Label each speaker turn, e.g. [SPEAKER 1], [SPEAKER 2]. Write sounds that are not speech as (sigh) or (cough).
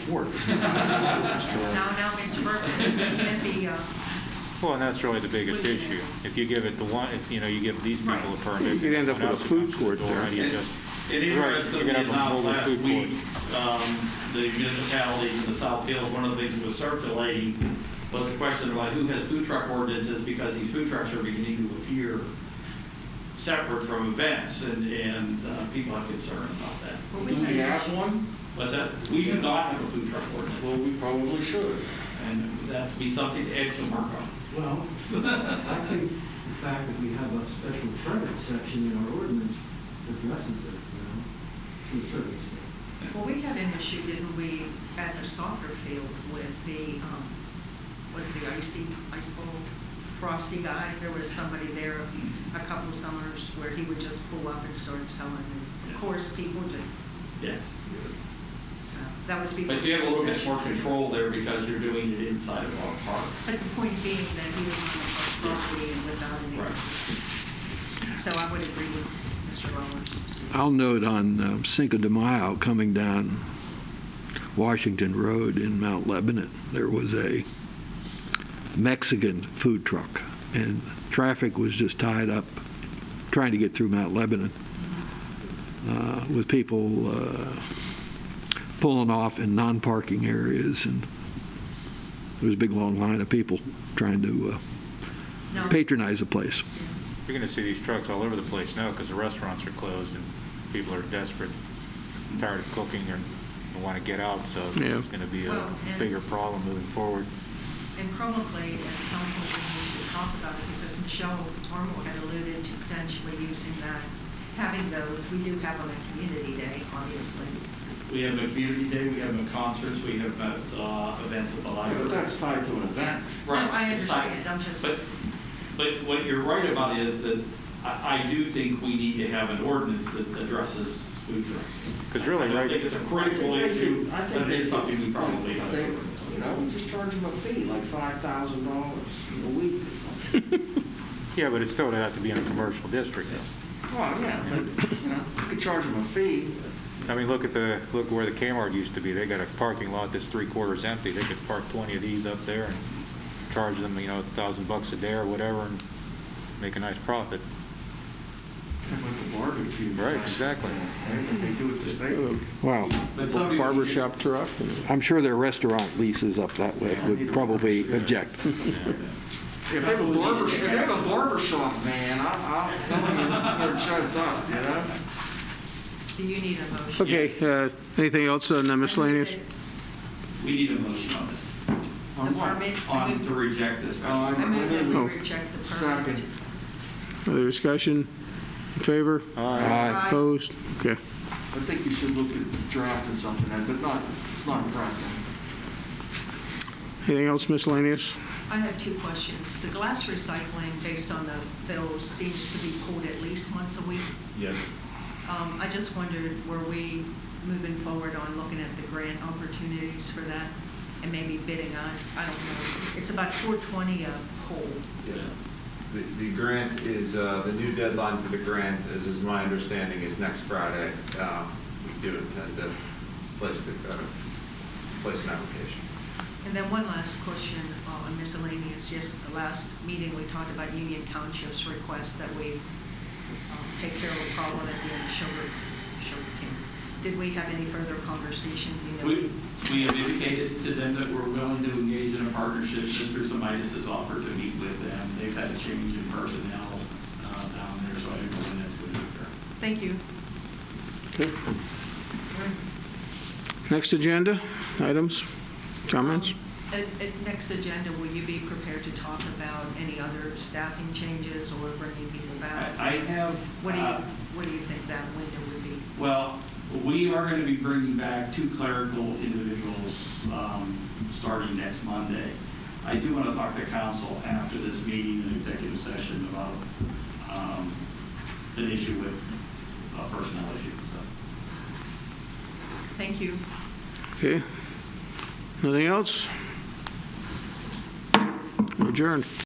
[SPEAKER 1] report.
[SPEAKER 2] (laughs)
[SPEAKER 3] Now, now, Mr. Burke, and the, uh,
[SPEAKER 4] Well, and that's really the biggest issue. If you give it to one, if, you know, you give these people a permit.
[SPEAKER 1] You'd end up with
[SPEAKER 4] someone
[SPEAKER 1] a
[SPEAKER 4] else
[SPEAKER 1] food
[SPEAKER 4] comes to the
[SPEAKER 1] court
[SPEAKER 4] door,
[SPEAKER 1] there.
[SPEAKER 4] how do you
[SPEAKER 2] It
[SPEAKER 4] just-
[SPEAKER 2] it
[SPEAKER 4] You're right, you're
[SPEAKER 2] interestingly
[SPEAKER 4] gonna have a
[SPEAKER 2] enough,
[SPEAKER 4] mobile
[SPEAKER 2] last
[SPEAKER 4] food court.
[SPEAKER 2] week, um, the municipality in the South Hills, one of the things that was circulating was a question about who has food truck ordinances, because these food trucks are beginning to appear separate from events, and, and uh, people have concern about that.
[SPEAKER 3] what
[SPEAKER 5] Do we have one?
[SPEAKER 2] But that, we do not have a food truck ordinance,
[SPEAKER 5] Well, we probably should.
[SPEAKER 2] and that'd be something to add to mark on.
[SPEAKER 6] Well, I think the fact that we have a special permit section in our ordinance addresses it, you know, to a certain extent.
[SPEAKER 3] Well, we had an issue, didn't we, at the soccer field with the, um, was the icy, ice bowl, frosty guy? There was somebody there a couple summers where he would just pull up and start selling. And Of
[SPEAKER 2] Yes.
[SPEAKER 3] course, people just,
[SPEAKER 2] Yes.
[SPEAKER 3] so, that was before.
[SPEAKER 2] But you have a little bit
[SPEAKER 3] concession
[SPEAKER 2] more
[SPEAKER 3] stand.
[SPEAKER 2] control there because you're doing it inside of our park.
[SPEAKER 3] But the point being that he was on the property and without any. So I would agree with Mr. Rollins.
[SPEAKER 7] I'll note on um, Cinco de Mayo, coming down Washington Road in Mount Lebanon, there was a Mexican food truck, and traffic was just tied up trying to get through Mount Lebanon uh, with people uh, pulling off in non-parking areas, and there was a big, long line of people trying to
[SPEAKER 3] No.
[SPEAKER 7] uh, patronize the place.
[SPEAKER 4] You're going to see these trucks all over the place now because the restaurants are closed and people are desperate, tired of cooking or want to get out, so this
[SPEAKER 7] Yeah.
[SPEAKER 4] is going to be a
[SPEAKER 3] Well, and-
[SPEAKER 4] bigger problem moving forward.
[SPEAKER 3] And probably at some point we need to talk about it because Michelle Ormo had alluded to potentially using that, having those. We do have on a community day, obviously.
[SPEAKER 2] We have a community day, we have a concerts, we have uh, events at the
[SPEAKER 5] Yeah, But
[SPEAKER 2] library.
[SPEAKER 5] that's tied to an event.
[SPEAKER 2] Right,
[SPEAKER 3] No, I
[SPEAKER 2] it's fine.
[SPEAKER 3] understand, I'm just-
[SPEAKER 2] But, but what you're right about is that I, I do think we need to have an ordinance that addresses food trucks.
[SPEAKER 4] 'Cause really,
[SPEAKER 2] I don't
[SPEAKER 4] right-
[SPEAKER 2] think it's a
[SPEAKER 5] I think
[SPEAKER 2] critical
[SPEAKER 5] they
[SPEAKER 2] issue,
[SPEAKER 5] should- I think
[SPEAKER 2] but it
[SPEAKER 5] they
[SPEAKER 2] is something we
[SPEAKER 5] should-
[SPEAKER 2] probably
[SPEAKER 5] I
[SPEAKER 2] have.
[SPEAKER 5] think,
[SPEAKER 2] to ordinance.
[SPEAKER 5] You know, we just charge them a fee, like five thousand dollars a week.
[SPEAKER 4] Yeah, but it's still going to have to be in a commercial district.
[SPEAKER 5] Well, yeah, but, you know, you could charge them a fee.
[SPEAKER 4] I mean, look at the, look where the Kmart used to be. They got a parking lot that's three quarters empty. They could park 20 of these up there and charge them, you know, a thousand bucks a day or whatever and make a nice profit.
[SPEAKER 5] Like the barbecue.
[SPEAKER 4] Right, exactly.
[SPEAKER 5] Right, They do it the state.
[SPEAKER 7] Wow.
[SPEAKER 2] But somebody-
[SPEAKER 1] Barbershop truck.
[SPEAKER 7] I'm sure their restaurant leases up that way would probably object.
[SPEAKER 5] If they have a barber, if they have a barber shop van, I- I'll tell them where it shuts up, you know?
[SPEAKER 3] Do you need a motion?
[SPEAKER 1] Okay, uh, anything else on the miscellaneous?
[SPEAKER 2] We need a motion on this.
[SPEAKER 3] The permit?
[SPEAKER 2] On to reject this.
[SPEAKER 5] Uh,
[SPEAKER 3] I move that we
[SPEAKER 1] Oh.
[SPEAKER 3] reject the permit.
[SPEAKER 5] Second.
[SPEAKER 1] Other discussion? In favor?
[SPEAKER 8] Uh,
[SPEAKER 3] Aye.
[SPEAKER 1] Opposed? Okay.
[SPEAKER 5] I think you should look at drafting something, but not, it's not pressing.
[SPEAKER 1] Anything else miscellaneous?
[SPEAKER 3] I have two questions. The glass recycling, based on the bill, seems to be pulled at least once a week.
[SPEAKER 2] Yes.
[SPEAKER 3] Um, I just wondered, were we moving forward on looking at the grant opportunities for that and maybe bidding on, I don't know. It's about 420 a pole.
[SPEAKER 8] The, the grant is, uh, the new deadline for the grant, as is my understanding, is next Friday. Um, We do intend to place the, uh, place an application.
[SPEAKER 3] And then one last question uh, on miscellaneous. Yes, the last meeting, we talked about Union Township's request that we um, take care of the problem at the end of Sugar, Sugar King. Did we have any further conversation? Do you know?
[SPEAKER 2] We, we have indicated to them that we're willing to engage in a partnership. Mr. Semitis has offered to meet with them. They've had a change in personnel uh, down there, so I don't know when that's going to occur.
[SPEAKER 3] Thank you.
[SPEAKER 1] Next agenda, items, comments?
[SPEAKER 3] At, at next agenda, will you be prepared to talk about any other staffing changes or bringing people back?
[SPEAKER 2] I I have,
[SPEAKER 3] What do you,
[SPEAKER 2] uh,
[SPEAKER 3] what do you think that window would be?
[SPEAKER 2] well, we are going to be bringing back two clerical individuals um, starting next Monday. I do want to talk to council after this meeting and executive session about um, an issue with a personnel issue, so.
[SPEAKER 3] Thank you.
[SPEAKER 1] Okay. Nothing else? Adjourned.